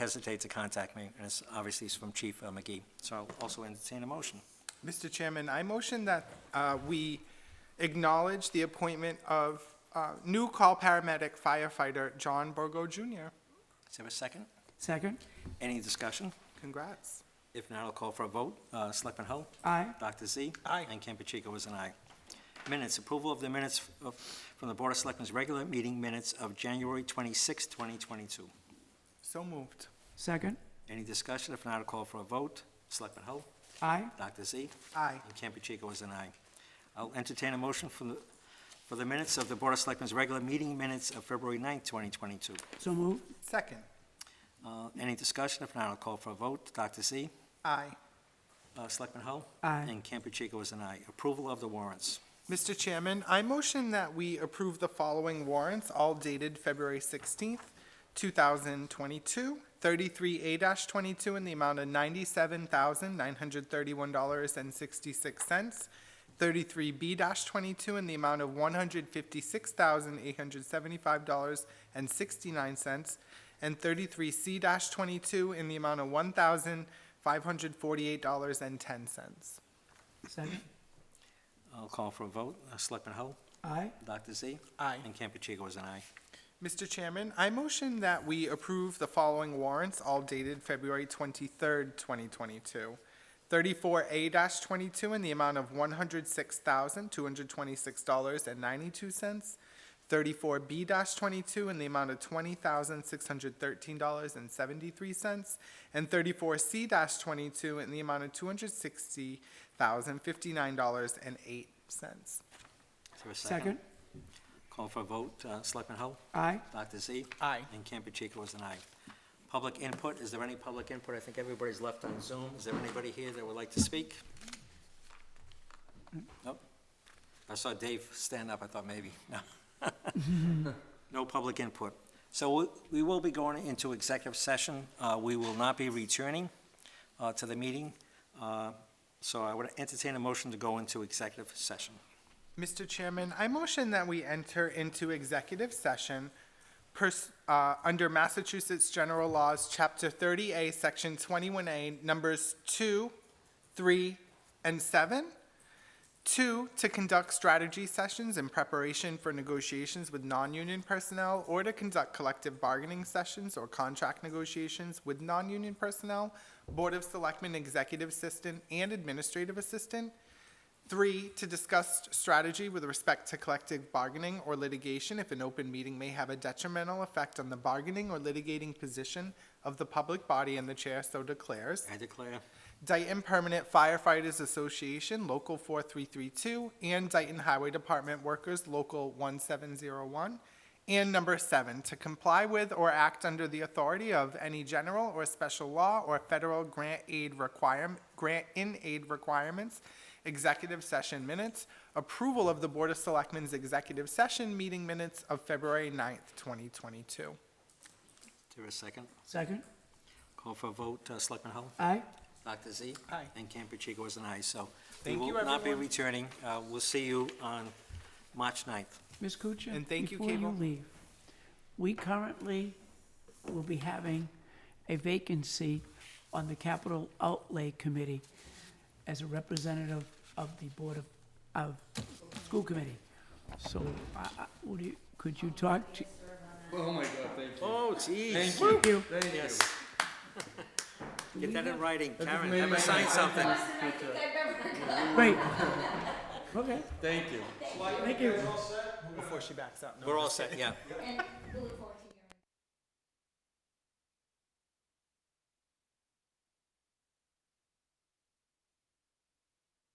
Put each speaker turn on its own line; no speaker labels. hesitate to contact me, and it's obviously it's from Chief uh, McGee. So I'll also entertain a motion.
Mr. Chairman, I motion that uh, we acknowledge the appointment of uh, new call paramedic firefighter John Borgo Jr.
Is there a second?
Second.
Any discussion?
Congrats.
If not, I'll call for a vote. Uh, Selectman Hull?
Aye.
Dr. Z?
Aye.
And Campuchico is an aye. Minutes, approval of the minutes of- from the Board of Selectmen's regular meeting minutes of January 26, 2022.
So moved.
Second.
Any discussion? If not, I'll call for a vote. Selectman Hull?
Aye.
Dr. Z?
Aye.
And Campuchico is an aye. I'll entertain a motion for the, for the minutes of the Board of Selectmen's regular meeting minutes of February 9, 2022.
So moved.
Second.
Uh, Any discussion? If not, I'll call for a vote. Dr. Z?
Aye.
Uh, Selectman Hull?
Aye.
And Campuchico is an aye. Approval of the warrants.
Mr. Chairman, I motion that we approve the following warrants, all dated February 16th, 2022. 33A-22 in the amount of $97,931.66. 33B-22 in the amount of $156,875.69. And 33C-22 in the amount of $1,548.10.
Second.
I'll call for a vote. Uh, Selectman Hull?
Aye.
Dr. Z?
Aye.
And Campuchico is an aye.
Mr. Chairman, I motion that we approve the following warrants, all dated February 23rd, 2022. 34A-22 in the amount of $106,226.92. 34B-22 in the amount of $20,613.73. And 34C-22 in the amount of $260,059.08.
Is there a
Second.
Call for a vote. Uh, Selectman Hull?
Aye.
Dr. Z?
Aye.
And Campuchico is an aye. Public input, is there any public input? I think everybody's left on Zoom. Is there anybody here that would like to speak? Nope. I saw Dave stand up, I thought maybe, no. No public input. So we- we will be going into executive session. Uh, We will not be returning uh, to the meeting. Uh, So I would entertain a motion to go into executive session.
Mr. Chairman, I motion that we enter into executive session pers- uh, under Massachusetts General Laws, Chapter 30A, Section 21A, Numbers 2, 3, and 7. Two, to conduct strategy sessions in preparation for negotiations with non-union personnel or to conduct collective bargaining sessions or contract negotiations with non-union personnel, Board of Selectmen Executive Assistant and Administrative Assistant. Three, to discuss strategy with respect to collective bargaining or litigation if an open meeting may have a detrimental effect on the bargaining or litigating position of the public body and the chair so declares.
I declare
Dayton Permanent Firefighters Association, Local 4332, and Dayton Highway Department Workers, Local 1701. And number seven, to comply with or act under the authority of any general or special law or federal grant aid requirement, grant in aid requirements, executive session minutes, approval of the Board of Selectmen's executive session meeting minutes of February 9th, 2022.
Is there a second.
Second.
Call for a vote. Uh, Selectman Hull?
Aye.
Dr. Z?
Aye.
And Campuchico is an aye, so.
Thank
We
you,
will not be
everyone.
returning. Uh, We'll see you on March 9th.
Ms. Kuchar?
And thank you,
Before
Cable.
you leave, we currently will be having a vacancy on the Capital Outlay Committee as a representative of the Board of, of School Committee. So, I, I, would you, could you talk to,
Oh my god, thank you.
Oh, geez.
Thank you.
you?
Thank you.
Yes. Get that in writing. Karen,
made
have her
my
sign something.
Wait. Okay,
Thank you.
thank you.
Before she backs up.
We're all set, yeah.
And we look forward to